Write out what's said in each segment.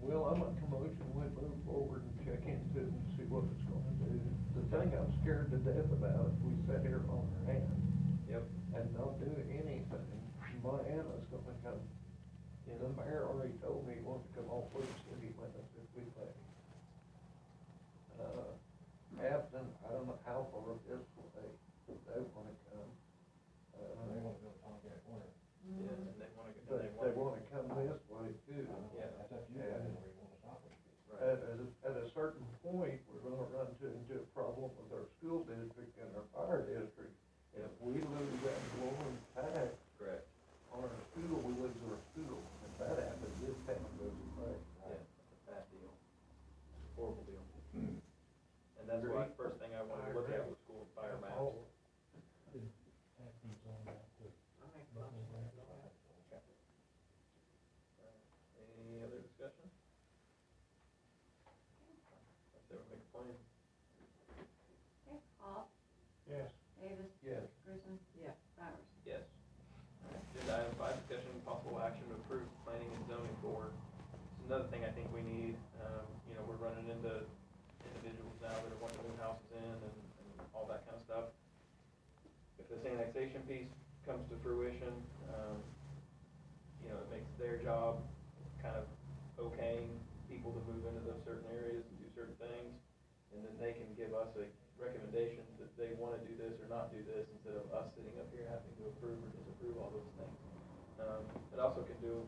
Well, I make a motion, we move forward and check into it and see what it's gonna do. The thing I'm scared to death about is we sit here on our hands Yep. and don't do anything. Moana's gonna come, and the mayor already told me he wants to come off Loop City with us if we pay. Uh, Afton, I don't know how far this way, if they wanna come. Uh, They wanna build Tomcat Corner. Yeah, and they wanna, go- But and they they wanna. wanna come this way too. Yeah. That's up to you, guys, where you wanna stop it. At, at, a- at a certain point, we're gonna run to, into a problem with our school district and our fire district. If we lose that glowing tax Correct, on our school, we lose our school. If that happens, this town goes away. yeah, it's a bad deal, horrible deal. Hmm. And that's why, Agreed. first thing I wanted to look at was school fire maps. Oh, Any other discussion? Let's see, we'll make a plan. Okay, Hall, Yes. Davis, Yes. Grissom. Yeah. Bowers. Yes. Agenda item five, discussion and possible action to approve planning and zoning board. It's another thing I think we need, um, you know, we're running into individuals now that are wanting to move houses in and, and all that kind of stuff. If this annexation piece comes to fruition, um, you know, it makes their job kind of okaying people to move into those certain areas and do certain things. And then they can give us a recommendation that they wanna do this or not do this, instead of us sitting up here having to approve or disapprove all those things. Um, it also can do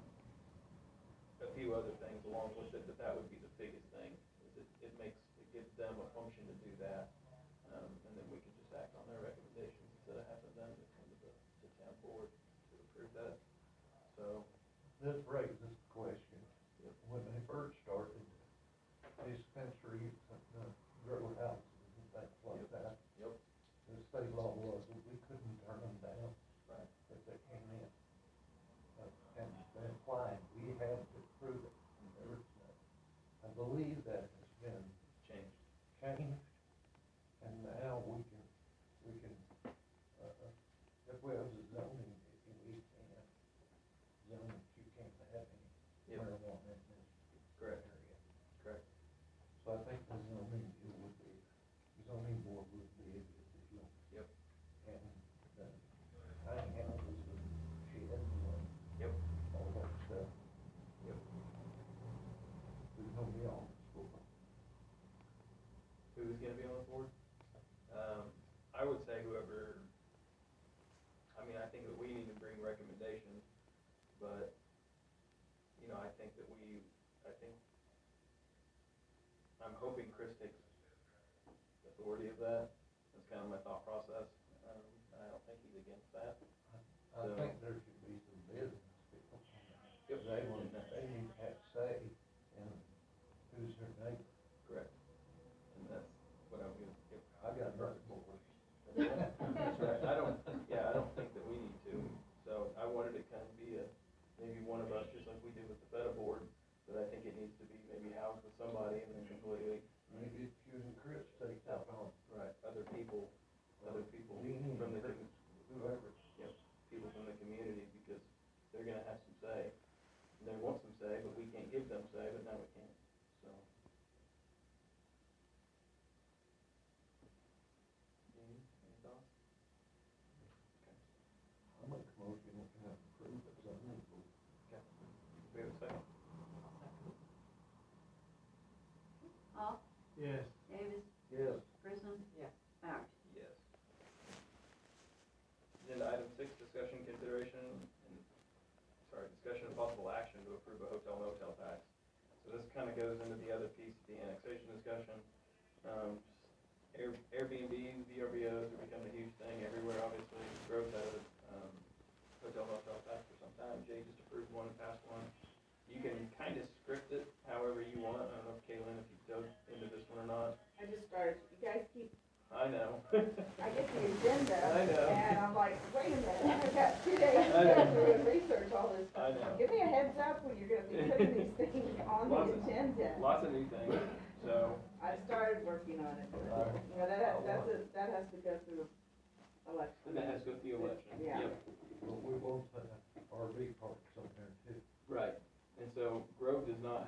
a few other things along with it, but that would be the biggest thing, is it, it makes, it gives them a function to do that. Um, and then we can just act on their recommendations instead of having them to come to the, to town board to approve that. So, This raises a question. Yep. When they first started, they spent streets and uh, grow houses and things like Yep. that. yep, The state law was that we couldn't turn them down. right, that they came in. uh, And they applied, we had to prove it. There was, uh, I believe that has been changed. changed, and now we can, we can, uh, uh, if we have the zoning, if we can, zone that you can't have any Yep. marijuana in this Correct. area. Correct. So I think the zoning deal would be, zoning board would be able to deal. Yep. And uh, the tiny houses and sheds and uh, Yep. all that stuff, Yep. there's nobody on the school. who's gonna be on the board. Um, I would say whoever, I mean, I think that we need to bring recommendations, but, you know, I think that we, I think, I'm hoping Chris takes authority of that, that's kind of my thought process, um, I don't think he's against that. I So- think there should be some business people. Yep. They want, they need to have say in who's their neighbor. Correct. And that's what I'm gonna, yep. I got nothing for it. That's right. I don't, yeah, I don't think that we need to, so I wanted to kind of be a, maybe one of us, just like we did with the FETA board, but I think it needs to be maybe housed with somebody and then completely, Maybe if you and Chris take that on. right, other people, other people Lean in, from the, Chris, com- Whoever. yep, people from the community, because they're gonna have some say. And They want some say, but we can't give them say, but now we can, so. Any, any thoughts? I make a motion we can approve it, so I think we'll We have a second? Hall, Yes. Davis, Yes. Grissom. Yeah. Bowers. Yes. Agenda item six, discussion consideration and, sorry, discussion and possible action to approve a hotel motel tax. So this kind of goes into the other piece, the annexation discussion. Um, Air- Airbnb, VRBOs are becoming a huge thing everywhere, obviously, growth out of, um, hotel motel tax for some time. Jay just approved one and passed one. You can kind of script it however you want. I don't know if Kaylin, if you dug into this one or not. I just started, you guys keep, I know. I get the agenda, I know. and I'm like, wait a minute, I've got two days I know. to do and research all this I stuff. know. Give me a heads up when you're gonna be putting these things Lots on the of- agenda. Lots of new things, so, I started working on it, but, Alright. you know, that, that's a, that has to go through election. and that has to go through election. Yeah. Yep, But we won't put RV parks on there too. Right, and so Grove does not